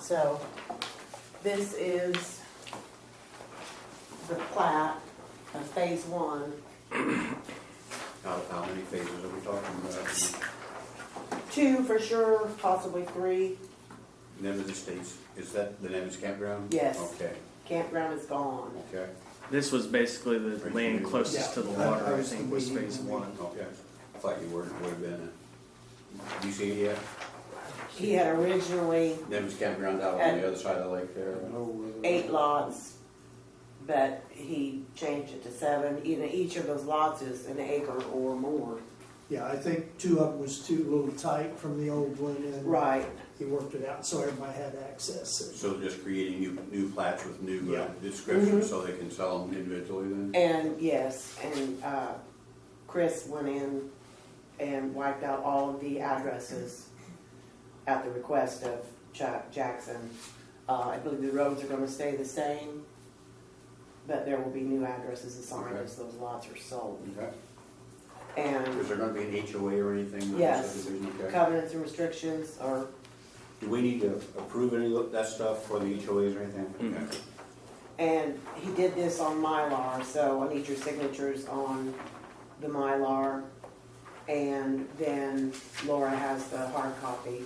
So this is the plat of phase one, How, how many phases are we talking about? two for sure, possibly three. Nemes Estates, is that the Nemes campground? Yes. Okay, Campground is gone. okay, This was basically the land closest to the water, I think, was phase one. okay. I thought you were, would have been, a- do you see uh, it yet? He had originally Nemes campground out on the other side of the lake there. eight lots, but he changed it to seven. You know, each of those lots is an acre or more. Yeah, I think two of them was too little tight from the old one and. Right. He worked it out so everybody had access. So just creating new, new plats with new uh, Yeah. descriptions so they can sell them individually then? Mm-hmm. And yes, and uh, Chris went in and wiped out all of the addresses at the request of Chuck Jackson. Uh, I believe the roads are gonna stay the same, but there will be new addresses assigned Okay. as those lots are sold. Okay. Is And there gonna be an HOA or anything? with the Yes. subdivision? Okay. covenants and restrictions are, Do we need to approve any of that stuff for the HOAs or anything? Mm. Okay. and he did this on Mylar, so I need your signatures on the Mylar. And then Laura has the hard copy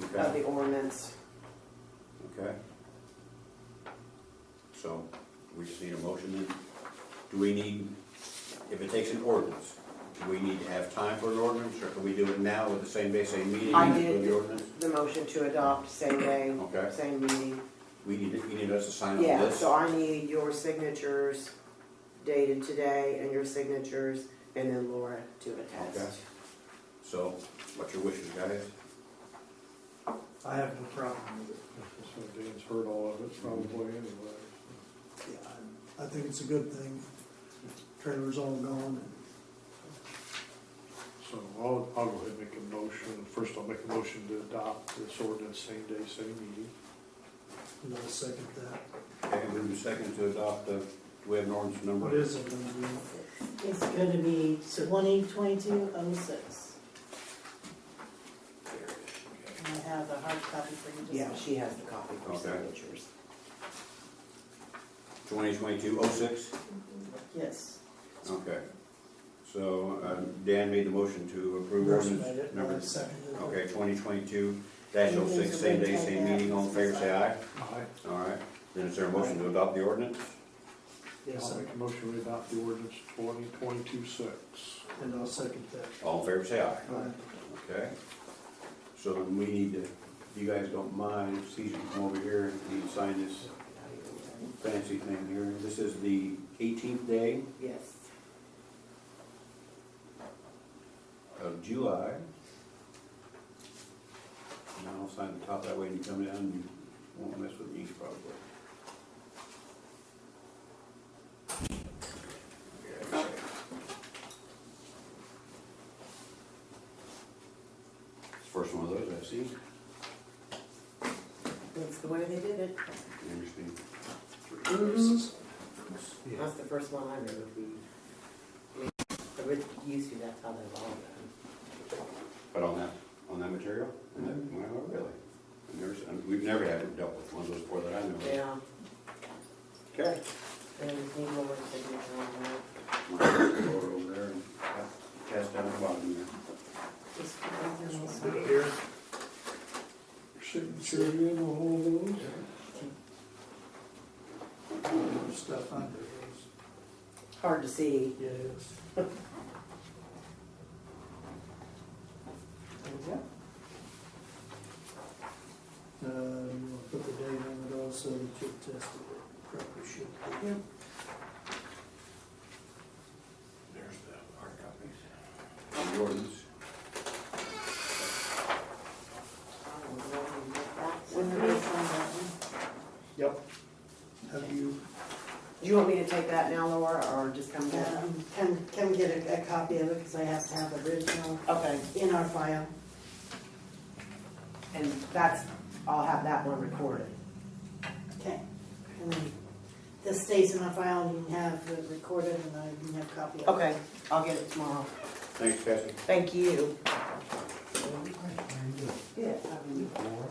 of Okay, the ordinance. okay. So, we just need a motion then? Do we need, if it takes an ordinance, do we need to have time for an ordinance, or can we do it now with the same day, same meeting? I as with did. the ordinance? The motion to adopt, same day, Okay. same meeting. We need, you need us to sign on Yeah, this? so I need your signatures dated today and your signatures and then Laura to Okay. attest. So, what's your wishes, guys? I have no problem with it. Dan's heard all of it probably anyway. Yeah, I- I think it's a good thing. Trailer's all gone and. So I'll, I'll go ahead and make a motion. First, I'll make a motion to adopt this ordinance same day, same meeting. And I'll second that. Okay, move to second to adopt the, do we have an ordinance number? What is it gonna be? It's going to be twenty twenty-two oh six. And I have a hard copy for you. to Yeah, sign. she has the copy for Okay. signatures. Twenty twenty-two oh six? Yes. Okay. So, um, Dan made the motion to approve Bruce made ordinance it, and number I seconded it. Okay, twenty twenty-two dash oh six, same day, same meeting, all in favor, say aye. Aye. All right, then is there a motion to adopt the ordinance? Yes, I'll I- make a motion to adopt the ordinance twenty twenty-two six. and I'll second that. All in favor, say aye. Aye. Okay. So then we need to, if you guys don't mind, Caesar, come over here and you can sign this fancy thing here. This is the eighteenth day Yes. of July. And I'll sign the top that way and you come down and you won't mess with these probably. Okay. It's the First one of those I've seen. That's the way they did it. Interesting. Mhm. That's the first one I remember. It used to, that's how they were all done. But on that, on that material? And that- Well, really? I've never, seen- we've never had dealt with one of those before that I know of. Yeah, Okay. and we need Laura's signature on that. Go over there and cast down the bottom there. Just put those in also. Put it here. Signature in on all of those. Stuff under it. Hard to see. Yes. Uh, you want to put the date on it also, that you tested it, probably should. There's the hard copies. Jordan's. When Do it is on that one. Yep. Have you, you want me to take that now, Laura, or just come down? Um, Come, come get a, a copy of it because I have to have the original Okay, in our file. and that's, I'll have that one recorded. Okay. And then this stays in our file and you can have it recorded and I can have a copy of it. Okay, I'll get it tomorrow. Thanks, Cassie. Thank you. Yeah. I mean-